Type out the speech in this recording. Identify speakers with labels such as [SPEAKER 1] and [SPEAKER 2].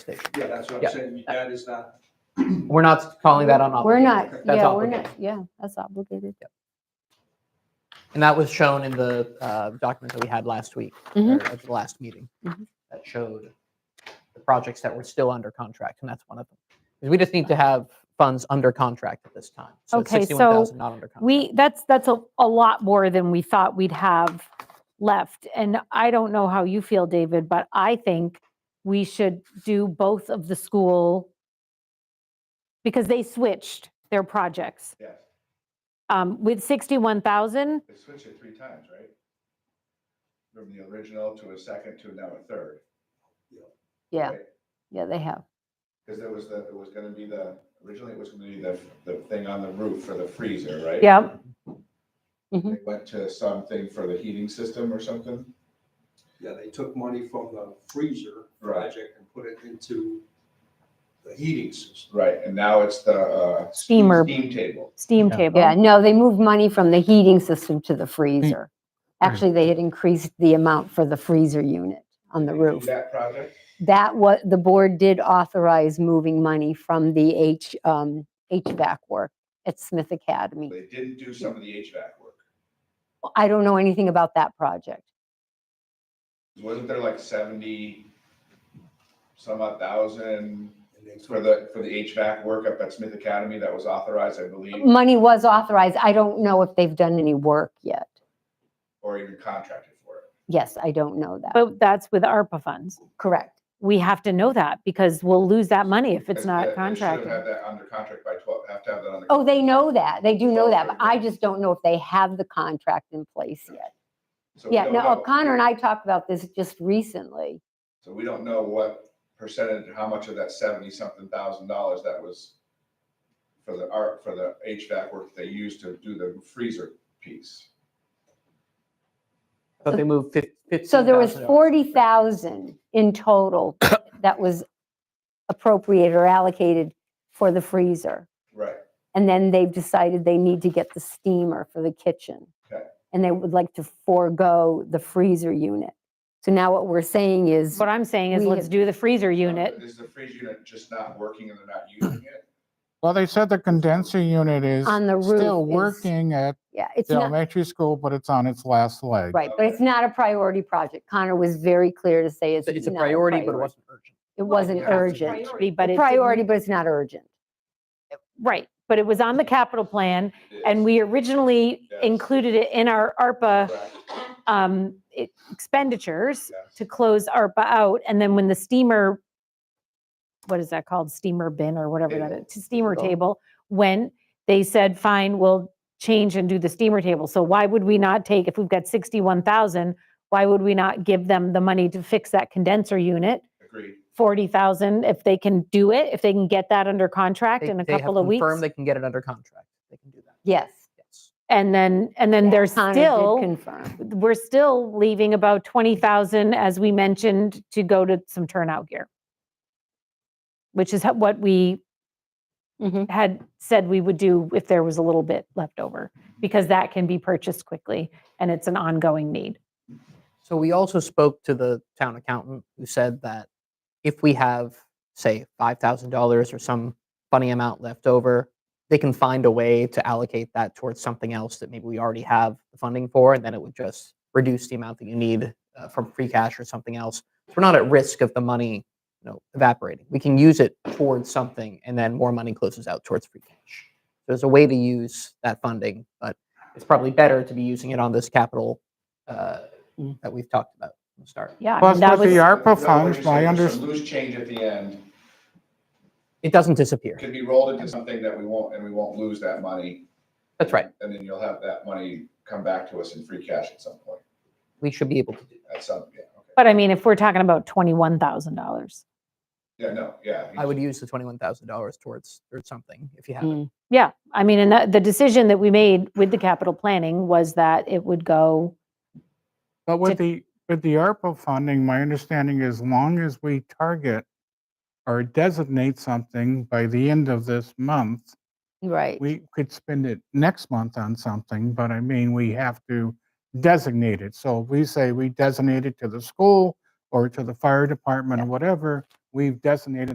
[SPEAKER 1] station.
[SPEAKER 2] Yeah, that's what
[SPEAKER 1] Yeah.
[SPEAKER 2] I'm saying. That is not.
[SPEAKER 1] We're not calling that on.
[SPEAKER 3] We're not,
[SPEAKER 2] That's
[SPEAKER 3] yeah, we're not,
[SPEAKER 1] obligated.
[SPEAKER 3] yeah, that's obligated.
[SPEAKER 1] And that was shown in the uh, document that we had last week, or
[SPEAKER 3] Mhm.
[SPEAKER 1] at the last meeting.
[SPEAKER 3] Mhm.
[SPEAKER 1] That showed the projects that were still under contract, and that's one of them. 'Cause We just need to have funds under contract at this time. So it's
[SPEAKER 3] Okay, so
[SPEAKER 1] 61,000 not under contract.
[SPEAKER 3] We, that's, that's a, a lot more than we thought we'd have left. And I don't know how you feel, David, but I think we should do both of the school because they switched their projects.
[SPEAKER 2] Yes,
[SPEAKER 3] Um, with 61,000,
[SPEAKER 2] they switched it three times, right? From the original to a second to now a third.
[SPEAKER 3] yeah,
[SPEAKER 2] Right.
[SPEAKER 3] yeah, they have.
[SPEAKER 2] Because there was the, it was gonna be the, originally it was gonna be the, the thing on the roof for the freezer, right?
[SPEAKER 3] Yeah,
[SPEAKER 4] Mm-hmm.
[SPEAKER 2] They went to something for the heating system or something?
[SPEAKER 5] Yeah, they took money from the freezer
[SPEAKER 2] Right.
[SPEAKER 5] project and put it into the heating system.
[SPEAKER 2] Right, and now it's the, uh.
[SPEAKER 3] Steamer.
[SPEAKER 2] Steam table.
[SPEAKER 3] steam
[SPEAKER 1] Yeah.
[SPEAKER 2] Oh.
[SPEAKER 3] table.
[SPEAKER 4] Yeah, no, they moved money from the heating system
[SPEAKER 2] Mm.
[SPEAKER 4] to the freezer. Actually, they had increased the amount for the freezer unit on the
[SPEAKER 2] Did they do
[SPEAKER 4] roof.
[SPEAKER 2] That project?
[SPEAKER 4] That was, the board did authorize moving money from the H, um, HVAC work at Smith Academy.
[SPEAKER 2] They didn't do some of the HVAC work.
[SPEAKER 4] I don't know anything about that project.
[SPEAKER 2] Wasn't there like seventy some odd thousand
[SPEAKER 5] And they
[SPEAKER 2] for the, for the HVAC work up at Smith Academy that was authorized, I believe,
[SPEAKER 4] Money was authorized. I don't know if they've done any work yet.
[SPEAKER 2] or even contracted for it?
[SPEAKER 4] Yes, I don't know that.
[SPEAKER 3] But oh, that's with ARPA funds.
[SPEAKER 4] Correct.
[SPEAKER 3] We have to know that because we'll lose that money if it's
[SPEAKER 2] Because
[SPEAKER 3] not
[SPEAKER 2] that- They should
[SPEAKER 3] contracted.
[SPEAKER 2] have had that under contract by twelve, have to have that under.
[SPEAKER 4] Oh, they know that. They do know that, but
[SPEAKER 2] Okay.
[SPEAKER 4] I just don't know if they have the contract in place yet.
[SPEAKER 2] So we
[SPEAKER 4] Yeah,
[SPEAKER 2] don't
[SPEAKER 4] no,
[SPEAKER 2] know.
[SPEAKER 4] O'Connor and I talked about this just recently.
[SPEAKER 2] So we don't know what percentage, how much of that seventy-something thousand dollars that was for the art, for the HVAC work they used to do the freezer piece.
[SPEAKER 1] But they moved fif- 15,000.
[SPEAKER 4] So there was 40,000 in total that was appropriated or allocated for the freezer.
[SPEAKER 2] Right.
[SPEAKER 4] And then they've decided they need to get the steamer for the kitchen.
[SPEAKER 2] Okay.
[SPEAKER 4] And they would like to forego the freezer unit. So now what we're saying is,
[SPEAKER 3] What I'm saying is
[SPEAKER 4] We-
[SPEAKER 3] let's do the freezer unit.
[SPEAKER 2] Is the freezer unit just not working and they're not using it?
[SPEAKER 6] Well, they said the condenser unit is
[SPEAKER 4] On the
[SPEAKER 6] still
[SPEAKER 4] roof is-
[SPEAKER 6] working at
[SPEAKER 4] yeah, it's
[SPEAKER 6] the
[SPEAKER 4] not,
[SPEAKER 6] elementary school, but it's on its last leg.
[SPEAKER 4] right, but it's not a priority project. Connor was very clear to say it's
[SPEAKER 1] So It's a
[SPEAKER 4] not
[SPEAKER 1] priority, but it wasn't urgent.
[SPEAKER 4] It wasn't
[SPEAKER 2] Yeah, it's a
[SPEAKER 4] urgent.
[SPEAKER 3] Priority, But it
[SPEAKER 4] Priority,
[SPEAKER 3] priority,
[SPEAKER 4] but it's not urgent.
[SPEAKER 3] right, but it was on the capital plan and we originally
[SPEAKER 2] Yes.
[SPEAKER 3] included it in our ARPA
[SPEAKER 2] Correct.
[SPEAKER 3] um, e- expenditures
[SPEAKER 2] Yes.
[SPEAKER 3] to close ARPA out. And then when the steamer, what is that called? Steamer bin or whatever that
[SPEAKER 2] Table.
[SPEAKER 3] is, steamer
[SPEAKER 2] Table.
[SPEAKER 3] table, when they said, fine, we'll change and do the steamer table. So why would we not take, if we've got 61,000, why would we not give them the money to fix that condenser unit?
[SPEAKER 2] Agreed.
[SPEAKER 3] 40,000 if they can do it, if they can get that under contract
[SPEAKER 1] They-
[SPEAKER 3] in a
[SPEAKER 1] they have
[SPEAKER 3] couple of weeks.
[SPEAKER 1] confirmed They can get it under contract. They can do that,
[SPEAKER 4] Yes.
[SPEAKER 1] yes.
[SPEAKER 3] And then, and then there's
[SPEAKER 4] Connor did
[SPEAKER 3] still,
[SPEAKER 4] Confirm.
[SPEAKER 3] we're still leaving about 20,000, as we mentioned, to go to some turnout gear. Which is ho- what we
[SPEAKER 4] Mhm.
[SPEAKER 3] had said we would do if there was a little bit left over, because that can be purchased quickly and it's an ongoing need.
[SPEAKER 1] So we also spoke to the town accountant who said that if we have, say, five thousand dollars or some funny amount left over, they can find a way to allocate that towards something else that maybe we already have the funding for, and then it would just reduce the amount that you need uh, from free cash or something else. So we're not at risk of the money, you know, evaporating. We can use it towards something, and then more money closes out towards free cash. There's a way to use that funding, but it's probably better to be using it on this capital uh, that we've talked about from the start.
[SPEAKER 3] Yeah. I mean,
[SPEAKER 6] Plus
[SPEAKER 3] that
[SPEAKER 6] with the
[SPEAKER 3] was-
[SPEAKER 6] ARPA
[SPEAKER 2] Is that what you're
[SPEAKER 6] funds,
[SPEAKER 2] saying?
[SPEAKER 6] my
[SPEAKER 2] There's
[SPEAKER 6] under,
[SPEAKER 2] some Loose change at the end
[SPEAKER 1] It doesn't disappear.
[SPEAKER 2] could be rolled into something that we won't, and we won't lose that money.
[SPEAKER 1] That's right.
[SPEAKER 2] And then you'll have that money come back to us in free cash at some point,
[SPEAKER 1] We should be able to do that.
[SPEAKER 2] at some, yeah, okay.
[SPEAKER 3] But I mean, if we're talking about $21,000,
[SPEAKER 2] Yeah, no, yeah.
[SPEAKER 1] I would use the twenty-one thousand dollars towards or something if you have it.
[SPEAKER 4] Mm.
[SPEAKER 3] Yeah, I mean, and that, the decision that we made with the capital planning was that it would go,
[SPEAKER 6] but with
[SPEAKER 3] to-
[SPEAKER 6] the, with the ARPA funding, my understanding is long as we target or designate something by the end of this month,
[SPEAKER 4] Right.
[SPEAKER 6] we could spend it next month on something, but I mean, we have to designate it. So if we say we designate it to the school or to the fire department or whatever, we've designated